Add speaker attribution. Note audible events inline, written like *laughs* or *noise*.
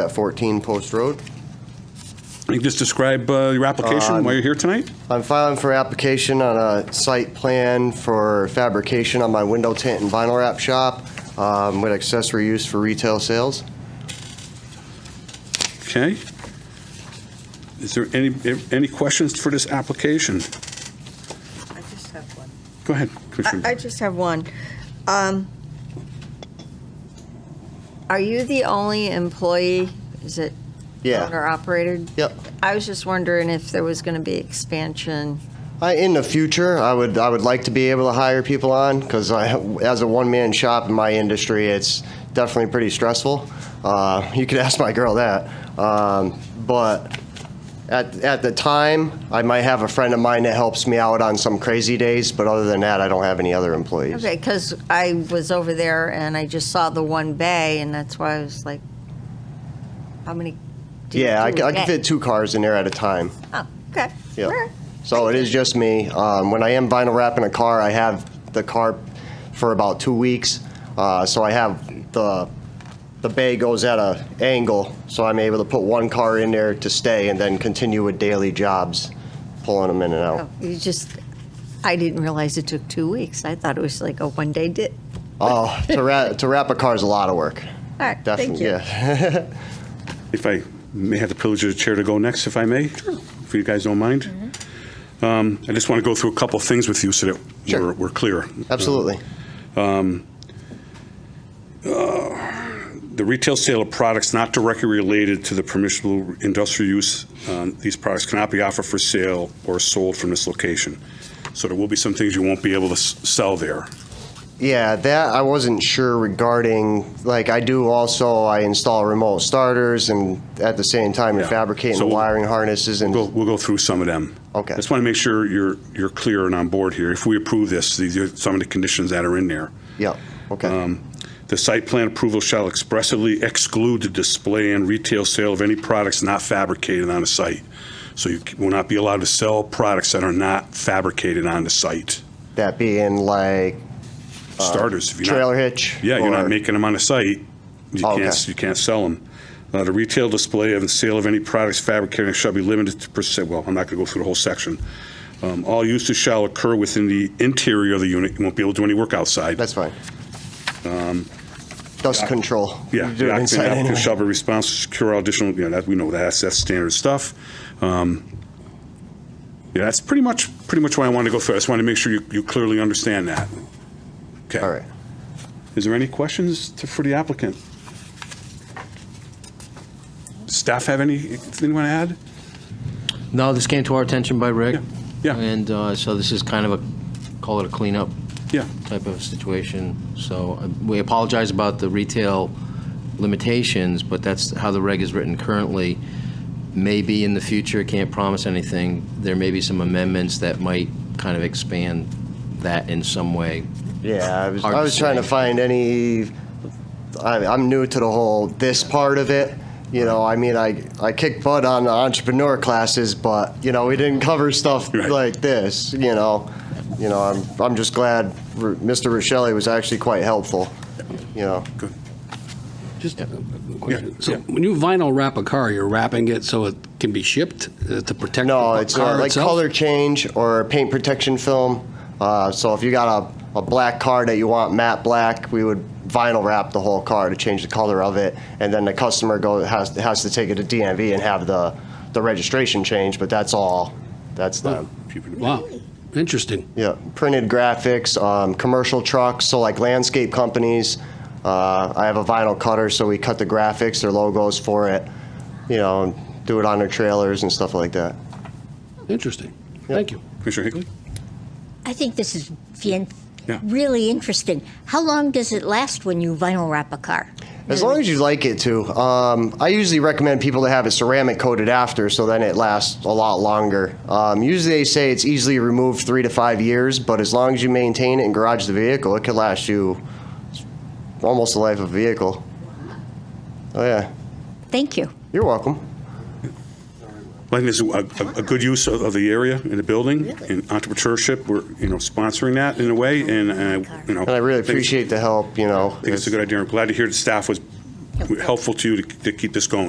Speaker 1: at 14 Post Road.
Speaker 2: You can just describe uh, your application, why you're here tonight?
Speaker 1: I'm filing for application on a site plan for fabrication on my window tint and vinyl wrap shop um, with accessory use for retail sales.
Speaker 2: Okay. Is there any, any questions for this application?
Speaker 3: I just have one.
Speaker 2: Go ahead, Commissioner.
Speaker 3: I just have one. Um, Are you the only employee, is it?
Speaker 1: Yeah.
Speaker 3: Owner operated?
Speaker 1: Yep.
Speaker 3: I was just wondering if there was going to be expansion.
Speaker 1: I, in the future, I would I would like to be able to hire people on because I, as a one man shop in my industry, it's definitely pretty stressful. Uh, you could *laughs* ask my girl that. Um, but at at the time, I might have a friend of mine that helps me out on some crazy days. But other than that, I don't have any other employees.
Speaker 3: Okay, because I was over there and I just saw the one bay and that's why I was like, how many? do you
Speaker 1: Yeah, I,
Speaker 3: do
Speaker 1: c- I can
Speaker 3: a
Speaker 1: fit
Speaker 3: day?
Speaker 1: two cars in there at a time.
Speaker 3: Oh, okay. All
Speaker 1: Yeah.
Speaker 3: right.
Speaker 1: So it is just me. Um, when I am vinyl wrapping a car, I have the car for about two weeks. Uh, so I have the the bay goes at a angle, so I'm able to put one car in there to stay and then continue with daily jobs, pulling them in and out.
Speaker 3: Oh, You just, I didn't realize it took two weeks. I thought it was like a one-day dip.
Speaker 1: Oh, to wrap to wrap a car is a lot of work.
Speaker 3: All right, thank
Speaker 1: Definitely,
Speaker 3: you.
Speaker 1: yeah. *laughs*
Speaker 2: If I may have the privilege of the chair to go next, if I may? Sure. If you guys don't mind? Um, I just want to go through a couple of things with you so that
Speaker 1: Sure.
Speaker 2: we're- we're clear.
Speaker 1: Absolutely.
Speaker 2: Uh, The retail sale of products not directly related to the permissible industrial use, um, these products cannot be offered for sale or sold from this location. So there will be some things you won't be able to s- sell there.
Speaker 1: Yeah, that I wasn't sure regarding. Like I do also, I install remote starters, and at the same time, you're
Speaker 2: Yeah.
Speaker 1: fabricating
Speaker 2: So-
Speaker 1: wiring harnesses and
Speaker 2: We'll, we'll go through some of them.
Speaker 1: Okay.
Speaker 2: Just want to make sure you're, you're clear and on board here. If we approve this, these are some of the conditions that are in there.
Speaker 1: yeah. Okay.
Speaker 2: Um, The site plan approval shall expressly exclude the display and retail sale of any products not fabricated on the site. So you c- will not be allowed to sell products that are not fabricated on the site.
Speaker 1: That being like
Speaker 2: Starters, if you're not.
Speaker 1: Uh, trailer hitch.
Speaker 2: Yeah, you're
Speaker 1: or-
Speaker 2: not making them on the site. You
Speaker 1: Oh,
Speaker 2: can't,
Speaker 1: okay.
Speaker 2: you can't sell them. Uh, the retail display of and sale of any products fabricated shall be limited to percent, well, I'm not gonna go through the whole section. Um, all uses shall occur within the interior of the unit. You won't be able to do any work outside.
Speaker 1: That's fine. Dust control.
Speaker 2: Um, Yeah,
Speaker 1: You
Speaker 2: the
Speaker 1: do it
Speaker 2: occupant
Speaker 1: inside
Speaker 2: applicant
Speaker 1: anyway.
Speaker 2: shall be responsible to secure all additional, you know, that, we know that, that's, that's standard stuff. Um, Yeah, that's pretty much, pretty much why I wanted to go through, I just wanted to make sure you, you clearly understand that. Okay.
Speaker 1: All right.
Speaker 2: Is there any questions to- for the applicant? Staff have any, anything want to add?
Speaker 4: No, this came to our attention by Rick.
Speaker 2: Yeah, yeah.
Speaker 4: And uh, so this is kind of a, call it a cleanup
Speaker 2: Yeah,
Speaker 4: type of situation. So uh, we apologize about the retail limitations, but that's how the reg is written currently. Maybe in the future, can't promise anything, there may be some amendments that might kind of expand that in some way.
Speaker 1: Yeah, I was,
Speaker 4: Hard
Speaker 1: I
Speaker 4: to
Speaker 1: was trying to
Speaker 4: say.
Speaker 1: find any. I, I'm new to the whole this part of it. You know, I mean, I I kicked butt on the entrepreneur classes, but you know, we didn't cover stuff
Speaker 2: Right.
Speaker 1: like this. You know, you know, I'm I'm just glad R- Mr. Rochelle was actually quite helpful. You know,
Speaker 2: good.
Speaker 5: Just a
Speaker 2: Yeah,
Speaker 5: question. So
Speaker 2: yeah.
Speaker 5: when you vinyl wrap a car, you're wrapping it so it can be shipped uh, to protect
Speaker 1: No,
Speaker 5: the
Speaker 1: it's
Speaker 5: car
Speaker 1: uh, like
Speaker 5: itself?
Speaker 1: color change or paint protection film. Uh, so if you got a, a black car that you want matte black, we would vinyl wrap the whole car to change the color of it, and then the customer goes has has to take it to DMV and have the the registration changed. But that's all. That's them.
Speaker 5: Wow, interesting.
Speaker 1: Yeah, printed graphics, um, commercial trucks, so like landscape companies. Uh, I have a vinyl cutter, so we cut the graphics, their logos for it, you know, and do it on their trailers and stuff like that.
Speaker 5: Interesting. Thank you.
Speaker 2: Commissioner Higley?
Speaker 6: I think this is fan-
Speaker 2: Yeah.
Speaker 6: really interesting. How long does it last when you vinyl wrap a car?
Speaker 1: As long as you like it to. Um, I usually recommend people to have it ceramic coated after, so then it lasts a lot longer. Um, usually they say it's easily removed three to five years, but as long as you maintain it and garage the vehicle, it could last you almost the life of a vehicle. Oh yeah,
Speaker 6: Thank you.
Speaker 1: you're welcome.
Speaker 2: I think there's a, a- a good use of, of the area and the building and entrepreneurship. We're, you know, sponsoring that in a way and, and, I- you know.
Speaker 1: And I really
Speaker 2: think it's-
Speaker 1: appreciate the help. You know,
Speaker 2: I think it's a good idea. I'm glad to hear the staff was helpful to you to, to keep this going.